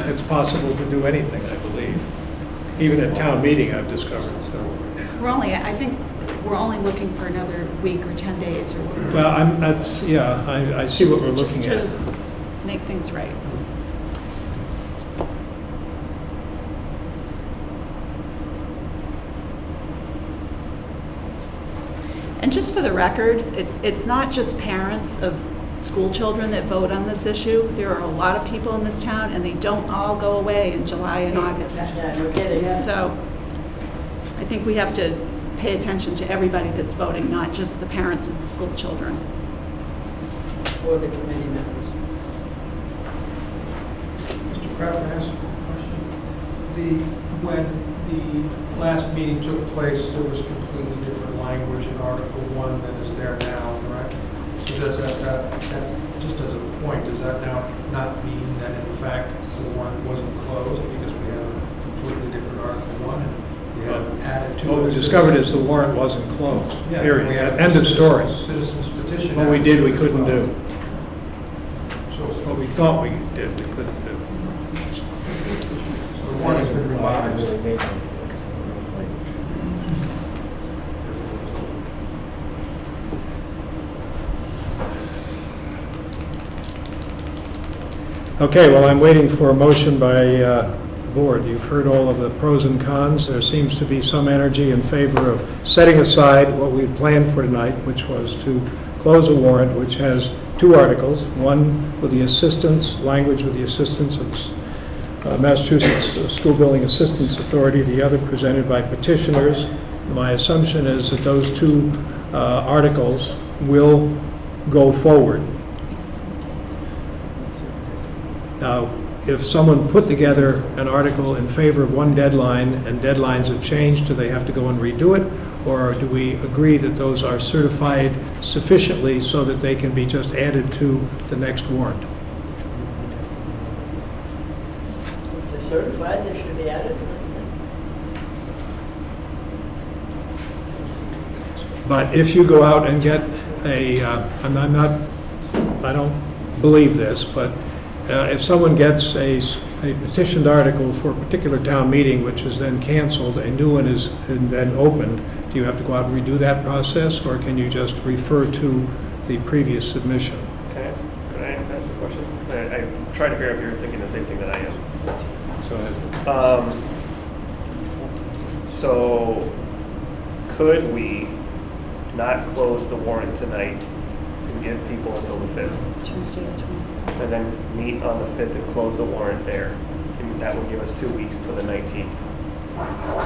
it's possible to do anything, I believe. Even at town meeting, I've discovered, so. We're only, I think, we're only looking for another week or 10 days or whatever. Well, I'm, that's, yeah, I, I see what Just- we're just looking to at. Make things right. And just for the record, it's, it's not just parents of school children that vote on this issue. There are a lot of people in this town, and they don't all go away in July and August. Yeah, no kidding. So I think we have to pay attention to everybody that's voting, not just the parents of the school children. Or the committee members. Mr. Kraft, can I ask a question? The, when the last meeting took place, there was completely different language in Article One than is there now, correct? So does that, that, that, just as a point, does that now not mean that in fact the warrant wasn't closed because we have a completely different Article One and we have added to it? What we discovered is the warrant wasn't closed, Yeah, period. we have End of story. Citizens petition. What we did, we couldn't do. So What we thought we did, we couldn't do. so the warrant has been revised. Okay, well, I'm waiting for a motion by uh, the board. You've heard all of the pros and cons. There seems to be some energy in favor of setting aside what we had planned for tonight, which was to close a warrant which has two articles, one with the assistance, language with the assistance of uh, Massachusetts School Building Assistance Authority, the other presented by petitioners. My assumption is that those two uh, articles will go forward. Now, if someone put together an article in favor of one deadline and deadlines have changed, do they have to go and redo it? Or do we agree that those are certified sufficiently so that they can be just added to the next warrant? If they're certified, they should be added. like I said. But if you go out and get a, uh, and I'm not, I don't believe this, but uh, if someone gets a s- a petitioned article for a particular town meeting, which is then canceled, a new one is then opened, do you have to go out and redo that process, or can you just refer to the previous submission? Can I ask, could I ask a question? I, I'm trying to figure out if you're thinking the same thing that I am. So uh, Um, so, could we not close the warrant tonight and give people until the fifth? Tuesday or Tuesday. And then meet on the fifth and close the warrant there? And that would give us two weeks till the nineteenth. No,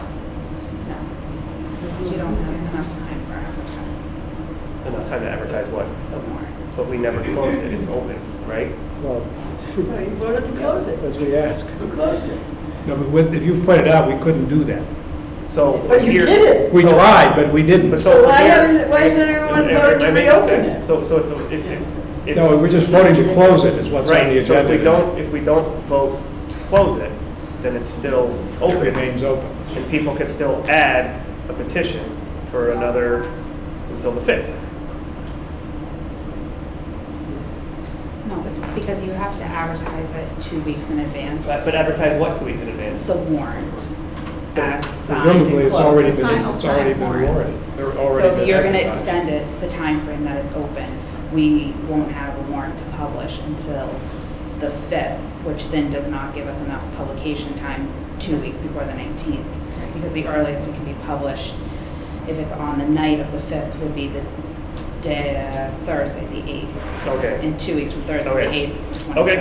because you don't have enough time for advertising Enough time to advertise what? the warrant. But we never closed it, it's open, right? Well, No, Oh, you voted to close it. as we ask, You closed it. No, but with- if you pointed out, we couldn't do that. So. But you here- did We So- tried, but we didn't. But So from why here- haven't- why hasn't everyone Am I- am voted to I making reopen it? sense? So, so if, the- if, if. if- No, we're just voting to close it, is what's on the Right, so if agenda. we don't, if we don't vote to close it, then it's still It open, remains open. and people could still add a petition for another, until the fifth. No, but because you have to advertise it two weeks in advance, But but advertise what two weeks in advance? the warrant as signed and Presumably, it's already closed. been, Signed, it's signed already been warrant. warranted. They're already So if been you're gonna advertised. extend it, the time frame that it's open, we won't have a warrant to publish until the fifth, which then does not give us enough publication time two weeks before the nineteenth. Because the earliest it can be published, if it's on the night of the fifth, would be the day, uh, Thursday, the eighth. Okay, And two weeks from Thursday, the Okay. eighth, is the okay,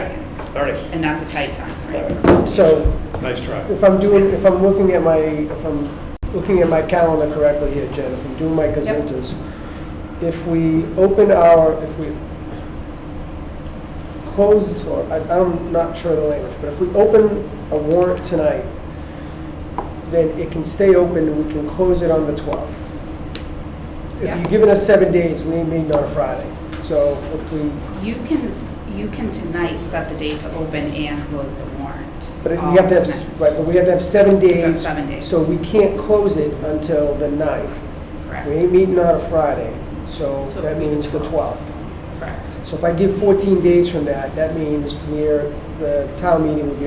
twenty-second. all right. And that's a tight time frame. so Nice try. if I'm doing, if I'm looking at my, if I'm looking at my calendar correctly here, Jen, if I'm doing my gazetas, if we open our, if we close, or I, I'm not sure of the language, but if we open a warrant tonight, then it can stay open and we can close it on the 12th. If Yeah. you've given us seven days, we ain't meeting on a Friday. So if we You can, you can tonight set the date to open and close the warrant. But it- all we have to have, s- tonight. right, but we have to have seven days. seven days. So we can't close it until the 9th. We Correct, ain't meeting on a Friday, so So that it'll be the means the 12th. correct. So if I give 14 days from that, that means we're, the town meeting would be